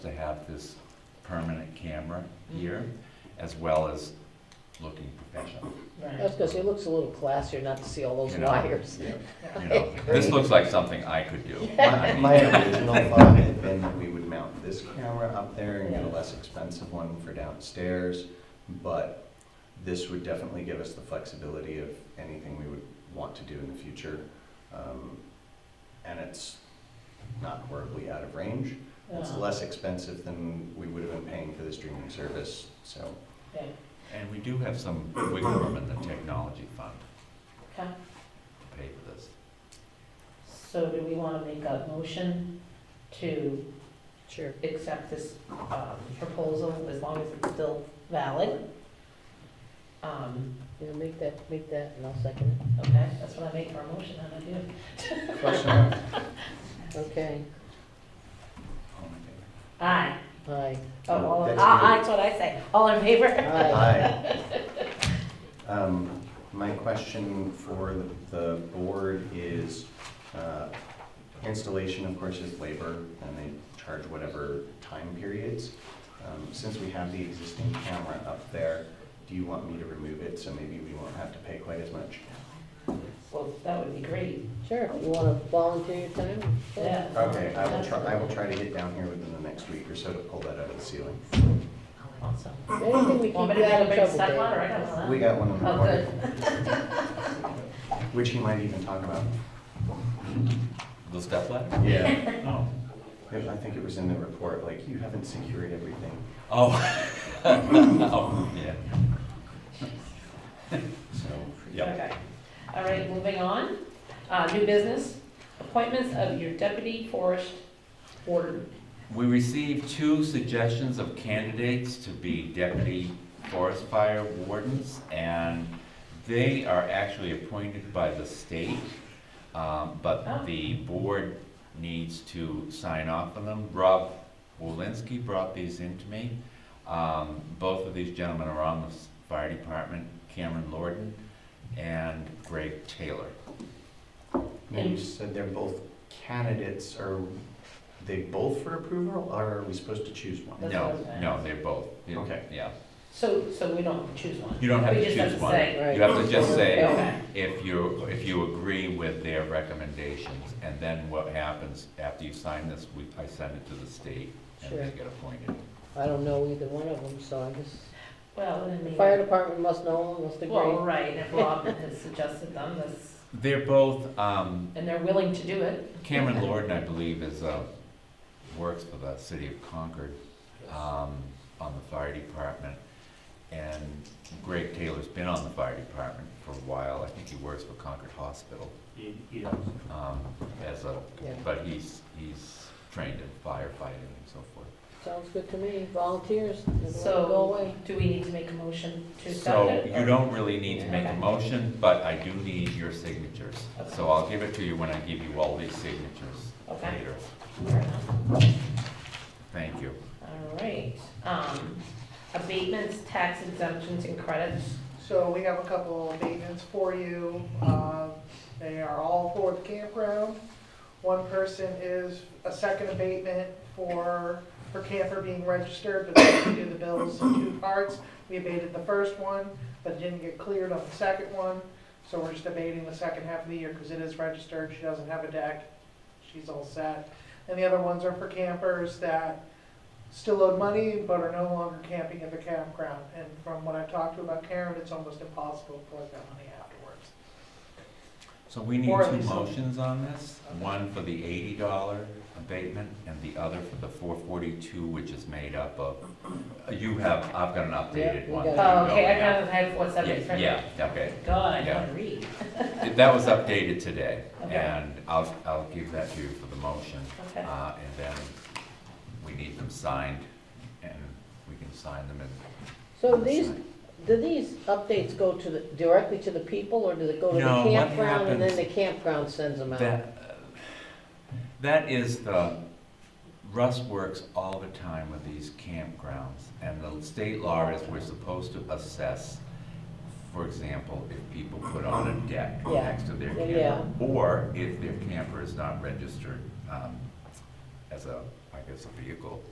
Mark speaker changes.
Speaker 1: to have this permanent camera here, as well as looking professional.
Speaker 2: That's because it looks a little classier not to see all those
Speaker 1: You know.
Speaker 2: wires.
Speaker 1: You know, this looks like something I could do. I
Speaker 3: My
Speaker 1: mean,
Speaker 3: my original thought had been that we would mount this camera up there and get a less expensive one for downstairs, but this would definitely give us the flexibility of anything we would want to do in the future. Um, And it's not horribly out of range. It's
Speaker 2: Uh,
Speaker 3: less expensive than we would have been paying for the streaming service, so.
Speaker 2: okay.
Speaker 1: And we do have some wiggle room in the technology fund
Speaker 2: Okay.
Speaker 1: to pay for this.
Speaker 2: So do we want to make a motion to
Speaker 4: Sure.
Speaker 2: accept this um, proposal as long as it's still valid? Um,
Speaker 4: Yeah, make that, make that, and I'll second
Speaker 2: Okay, that's what I make for a motion, and I do.
Speaker 3: Question?
Speaker 4: it. Okay,
Speaker 2: Aye.
Speaker 4: aye,
Speaker 2: Oh, all, aye,
Speaker 3: That's
Speaker 2: aye,
Speaker 3: me.
Speaker 2: that's what I say. All in favor?
Speaker 4: aye.
Speaker 3: Hi. Um, My question for the- the board is, uh, installation, of course, is labor, and they charge whatever time periods. Um, Since we have the existing camera up there, do you want me to remove it, so maybe we won't have to pay quite as much?
Speaker 2: Well, that would be great,
Speaker 4: Sure, you wanna volunteer your time? Sure.
Speaker 2: yeah.
Speaker 3: Okay, I will try, I will try to get down here within the next week or so to pull that out of the ceiling.
Speaker 2: Awesome.
Speaker 4: Anything we
Speaker 2: Want me
Speaker 4: keep
Speaker 2: to make
Speaker 4: you out
Speaker 2: a
Speaker 4: of
Speaker 2: big
Speaker 4: trouble,
Speaker 2: step on, or I
Speaker 4: Dave.
Speaker 2: don't know?
Speaker 3: We got one in the
Speaker 2: Oh,
Speaker 3: corner,
Speaker 2: good.
Speaker 3: which he might even talk about.
Speaker 1: The step ladder?
Speaker 3: Yeah.
Speaker 1: Oh.
Speaker 3: I think it was in the report, like, you haven't secured everything.
Speaker 1: Oh. Oh, yeah.
Speaker 3: So,
Speaker 1: Yep.
Speaker 2: Okay. All right, moving on. Uh, New business, appointments of your deputy forest warden.
Speaker 1: We received two suggestions of candidates to be deputy forest fire wardens, and they are actually appointed by the state, um,
Speaker 2: Oh.
Speaker 1: but the board needs to sign off on them. Rob Wolinski brought these in to me. Um, Both of these gentlemen are on the s- fire department, Cameron Lorden and Greg Taylor.
Speaker 3: and you said they're both candidates, are they both for approval, or are we supposed to choose one?
Speaker 2: That's what I
Speaker 1: No,
Speaker 2: was gonna
Speaker 1: no,
Speaker 2: ask.
Speaker 1: they're both.
Speaker 3: Okay.
Speaker 1: Yeah.
Speaker 2: So, so we don't choose one.
Speaker 1: You don't have
Speaker 2: We
Speaker 1: to
Speaker 2: just
Speaker 1: choose
Speaker 2: have to
Speaker 1: one.
Speaker 2: say.
Speaker 4: Right.
Speaker 1: You have to just say,
Speaker 2: Okay.
Speaker 1: if you, if you agree with their recommendations, and then what happens after you sign this, we, I send it to the state, and they
Speaker 4: Sure.
Speaker 1: get appointed.
Speaker 4: I don't know either one of them, so I guess,
Speaker 2: Well, then
Speaker 4: the
Speaker 2: maybe.
Speaker 4: fire department must know, them, must
Speaker 2: Well,
Speaker 4: agree.
Speaker 2: right, if Rob has suggested them, that's,
Speaker 1: They're both, um,
Speaker 2: and they're willing to do it.
Speaker 1: Cameron Lorden, I believe, is, uh, works for the city of Concord, um, on the fire department. And Greg Taylor's been on the fire department for a while, I think he works for Concord Hospital,
Speaker 5: He, he does.
Speaker 1: um, as a,
Speaker 4: Yeah.
Speaker 1: but he's, he's trained in firefighting and so forth.
Speaker 4: Sounds good to me, volunteers, never let it
Speaker 2: So-
Speaker 4: go away.
Speaker 2: Do we need to make a motion to accept
Speaker 1: So
Speaker 2: it?
Speaker 1: you don't really need to make a
Speaker 2: Okay.
Speaker 1: motion, but I do need your signatures. So I'll give it to you when I give you all these signatures
Speaker 2: Okay.
Speaker 1: later.
Speaker 2: Fair enough.
Speaker 1: Thank you.
Speaker 2: All right, um, abatements, tax exemptions and credits.
Speaker 6: So we have a couple of abatements for you. Um, They are all for the campground. One person is a second abatement for her camper being registered, but they didn't do the bills in two parts. We abated the first one, but didn't get cleared on the second one. So we're just abating the second half of the year because it is registered. She doesn't have a deck. She's all set. And the other ones are for campers that still owe money but are no longer camping at the campground. And from what I've talked to about Karen, it's almost impossible to collect that money afterwards.
Speaker 1: So we need
Speaker 6: Or at
Speaker 1: two
Speaker 6: least-
Speaker 1: motions on this, one for the eighty dollar abatement and the other for the four forty-two, which is made up of, uh, you have, I've got an
Speaker 4: Yeah,
Speaker 1: updated
Speaker 4: we
Speaker 1: one.
Speaker 4: got it.
Speaker 1: that
Speaker 2: Oh,
Speaker 1: you don't
Speaker 2: okay, I
Speaker 1: have.
Speaker 2: kind of had four
Speaker 1: Yeah,
Speaker 2: seventy-three.
Speaker 1: yeah, okay.
Speaker 2: God, I
Speaker 1: Yeah.
Speaker 2: can read.
Speaker 1: That was updated today,
Speaker 2: Okay.
Speaker 1: and I'll, I'll give that to you for the motion.
Speaker 2: Okay.
Speaker 1: Uh, and then we need them signed, and we can sign them and.
Speaker 4: So these, do these updates go to the, directly to the people, or do they go to the
Speaker 1: No, what
Speaker 4: campground, and then
Speaker 1: happens-
Speaker 4: the campground sends them out?
Speaker 1: That, uh, that is the, Russ works all the time with these campgrounds, and the state law is we're supposed to assess, for example, if people put on a deck
Speaker 4: Yeah.
Speaker 1: next to their
Speaker 4: Yeah,
Speaker 1: camper, or if their camper is not registered, um, as a, I guess, a vehicle.